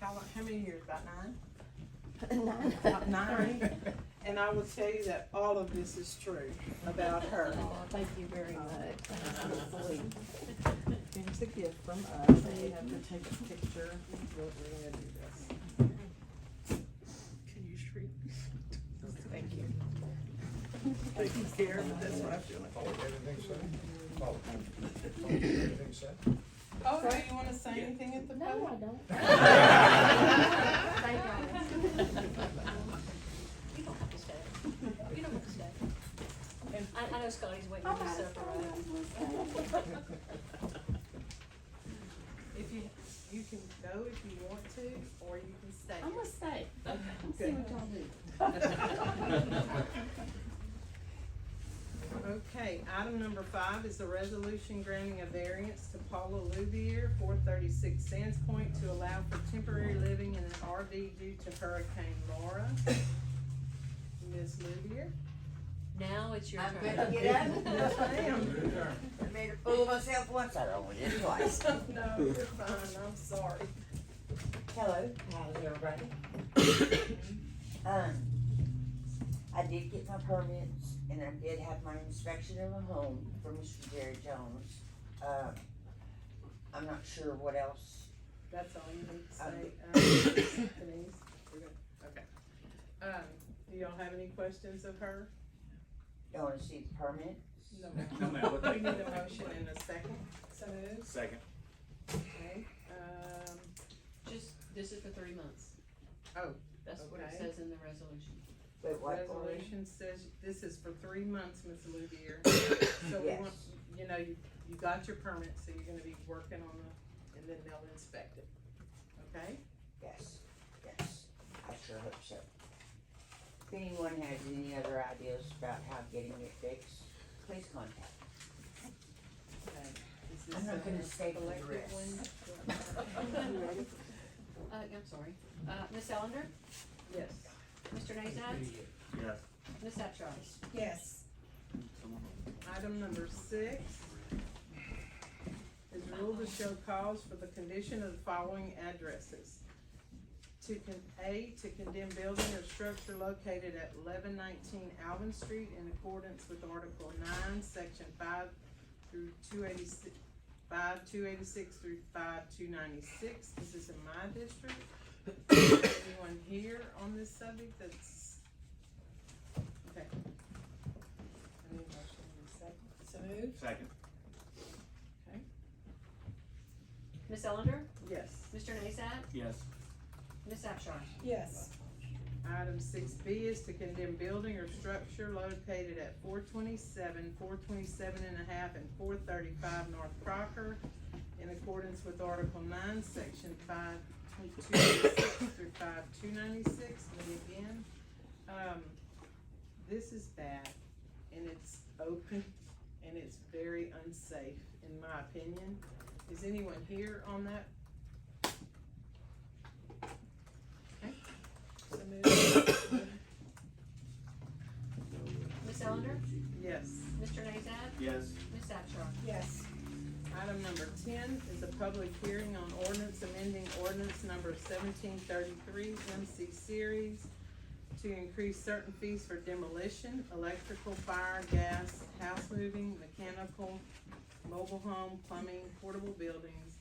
how many years, about nine? Nine. About nine? And I will tell you that all of this is true about her. Oh, thank you very much. Here's a gift from us, and we have to take a picture. We're gonna do this. Can you shriek? Thank you. Thank you, Karen, that's what I feel like. Everything set? Oh. Everything set? Oh, do you wanna say anything at the No, I podium? don't. Thank You don't have to stay. You don't have to stay. And- I, I know Scotty's waiting for his supper, right? If you, you can go if you want to, or you can stay. I'm gonna stay. See what y'all do. Okay, item number five is a resolution granting a variance to Paula Louvier, four thirty-six Sands Point, to allow for temporary living in an RV due to Hurricane Laura. Ms. Louvier? Now it's your I turn. better get up. Yes, ma'am. I made a fool of myself once, I don't want it twice. No, you're fine, I'm sorry. Hello, how's everybody? Um, I did get my permits and I did have my inspection of a home for Mr. Jerry Jones. Uh, I'm not sure what else, That's all you need to say, um, Denise? We're good. Okay. Um, do y'all have any questions of her? you wanna see the permit? No. No, ma'am. We'll We take- Uh, need a motion in a second. So moved. Second. Okay, um, Just, this is for three months. Oh, That's what it okay. says in the resolution. Wait, what? Lori? Resolution says, this is for three months, Ms. Louvier. So we Yes. want, you know, you, you got your permit, so you're gonna be working on the, and then they'll inspect it. Okay? Yes, yes, I sure hope so. If anyone has any other ideas about how getting it fixed, please contact me. Okay. Is I'm this not gonna a stay for the collective rest. one? Uh, I'm sorry. Uh, Ms. Ellender, Yes. Mr. Nazat, Yes. Ms. Abchar. Yes. Item number six is rule to show cause for the condition of the following addresses. To con, A, to condemn building or structure located at eleven nineteen Alvin Street in accordance with Article nine, Section five through two eighty-six, five two eighty-six through five two ninety-six. This is in my district. Anyone here on this subject that's? Okay. I need a motion in a second. So moved. Second. Ms. Ellender, Yes. Mr. Nazat, Yes. Ms. Abchar. Yes. Item six B is to condemn building or structure located at four twenty-seven, four twenty-seven and a half, and four thirty-five North Crocker in accordance with Article nine, Section five two eighty-six through five two ninety-six, and again, um, this is bad, and it's open, and it's very unsafe, in my opinion. Is anyone here on that? Ms. Ellender, Yes. Mr. Nazat, Yes. Ms. Abchar. Yes. Item number ten is a public hearing on ordinance amending ordinance number seventeen thirty-three MC Series to increase certain fees for demolition, electrical, fire, gas, house moving, mechanical, mobile home, plumbing, portable buildings,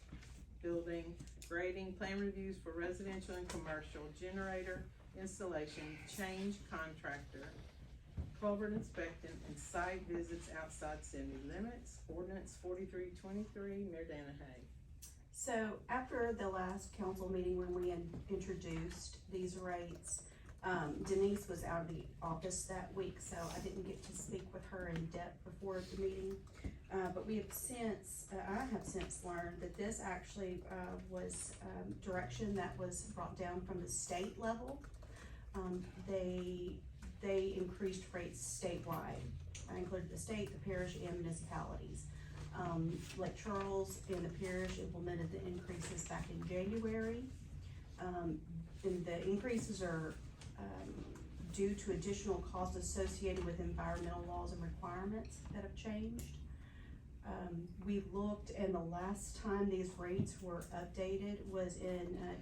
building, grading, plan reviews for residential and commercial, generator installation, change contractor, culvert inspection and site visits outside city limits, ordinance forty-three twenty-three, Mayor Danahay. So after the last council meeting when we in- introduced these rates, um, Denise was out of the office that week, so I didn't get to speak with her in depth before the meeting. Uh, but we have since, uh, I have since learned that this actually, uh, was, um, direction that was brought down from the state level. Um, they, they increased rates statewide. I included the state, the parish, and municipalities. Um, Lake Charles and the parish implemented the increases back in January. Um, and the increases are, um, due to additional costs associated with environmental laws and requirements that have changed. Um, we looked and the last time these rates were updated was in, uh,